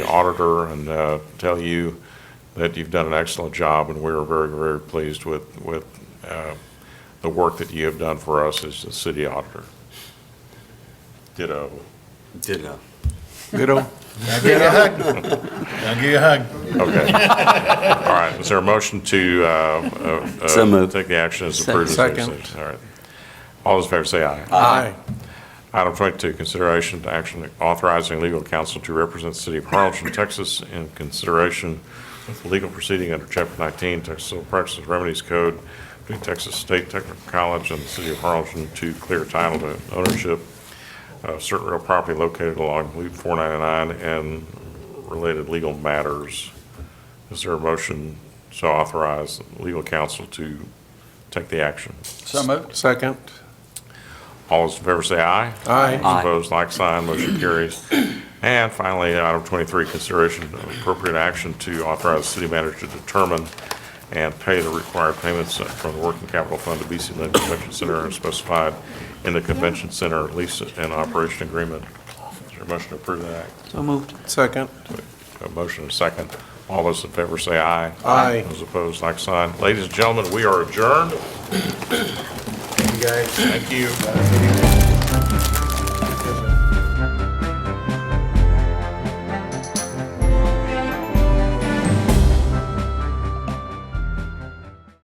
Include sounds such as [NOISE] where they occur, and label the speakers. Speaker 1: the auditor and uh, tell you that you've done an excellent job, and we are very, very pleased with, with uh, the work that you have done for us as the city auditor. Ditto.
Speaker 2: Ditto.
Speaker 1: Ditto?
Speaker 3: I'll give you a hug. I'll give you a hug.
Speaker 1: Okay. [LAUGHS] All right, is there a motion to uh, uh, uh,
Speaker 2: So moved.
Speaker 1: take the action as approved?
Speaker 4: Second.
Speaker 1: All right. All those in favor say aye.
Speaker 4: Aye.
Speaker 1: Item 22, consideration to action authorizing legal counsel to represent the city of Harlingen, Texas in consideration of legal proceeding under Chapter 19 Texas Civil Practices Remedies Code between Texas State Technical College and the city of Harlingen to clear title to ownership of certain real property located along Loop 499 and related legal matters. Is there a motion to authorize legal counsel to take the action?
Speaker 3: So moved.
Speaker 4: Second.
Speaker 1: All those in favor say aye.
Speaker 4: Aye.
Speaker 1: Those Opposed, like sign, motion carries. And finally, item 23, consideration of appropriate action to authorize the city manager to determine and pay the required payments from the working capital fund to BC Lynn Convention Center as specified in the convention center lease and operation agreement. Is there a motion to approve that?
Speaker 5: So moved.
Speaker 4: Second.
Speaker 1: A motion and a second. All those in favor say aye.
Speaker 4: Aye.
Speaker 1: Those opposed, like sign. Ladies and gentlemen, we are adjourned.
Speaker 3: You guys.
Speaker 1: Thank you.
Speaker 3: Good evening.